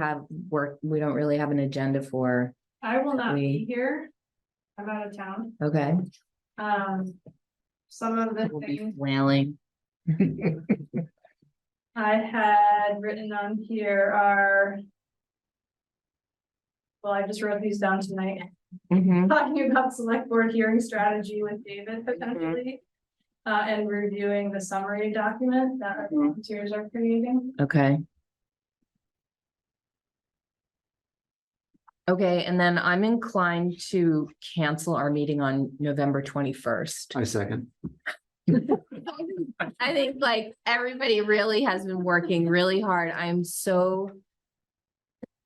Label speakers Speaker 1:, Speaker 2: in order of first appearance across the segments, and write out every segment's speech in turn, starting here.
Speaker 1: have work, we don't really have an agenda for,
Speaker 2: I will not
Speaker 1: We-
Speaker 2: be here. I'm out of town.
Speaker 1: okay?
Speaker 2: Um, some of the
Speaker 1: We'll be
Speaker 2: things
Speaker 1: flailing. Mm-hmm.
Speaker 2: I had written on here are. Well, I just wrote these down tonight,
Speaker 1: Mhm.
Speaker 2: talking about select board hearing strategy with David potentially. Uh, and reviewing the summary document that our volunteers are creating.
Speaker 1: Okay. Okay, and then I'm inclined to cancel our meeting on November twenty-first.
Speaker 3: I second.
Speaker 1: I think like everybody really has been working really hard. I'm so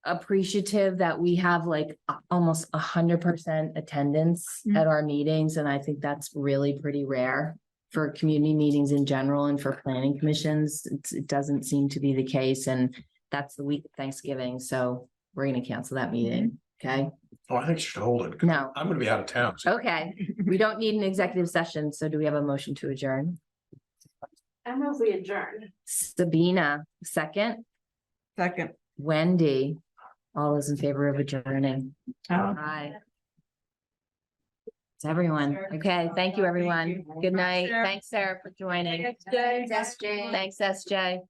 Speaker 1: appreciative that we have like a- almost a hundred percent attendance at our meetings, and I think that's really pretty rare for community meetings in general and for planning commissions. It's, it doesn't seem to be the case, and that's the week of Thanksgiving, so we're gonna cancel that meeting, okay?
Speaker 4: Oh, I think you should hold it. 'cause
Speaker 1: No,
Speaker 4: I'm gonna be out of town. so-
Speaker 1: okay, we don't need an executive session, so do we have a motion to adjourn?
Speaker 2: I move we adjourn.
Speaker 1: Sabina, second?
Speaker 5: Second.
Speaker 1: Wendy, all those in favor of adjourning? Aye. It's everyone.
Speaker 2: Sure.
Speaker 1: Okay, thank you,
Speaker 2: Thank
Speaker 1: everyone.
Speaker 2: you.
Speaker 1: Good night.
Speaker 2: Sure.
Speaker 1: Thanks, Sarah, for joining.
Speaker 2: Thanks, Jay.
Speaker 1: Thanks, SJ.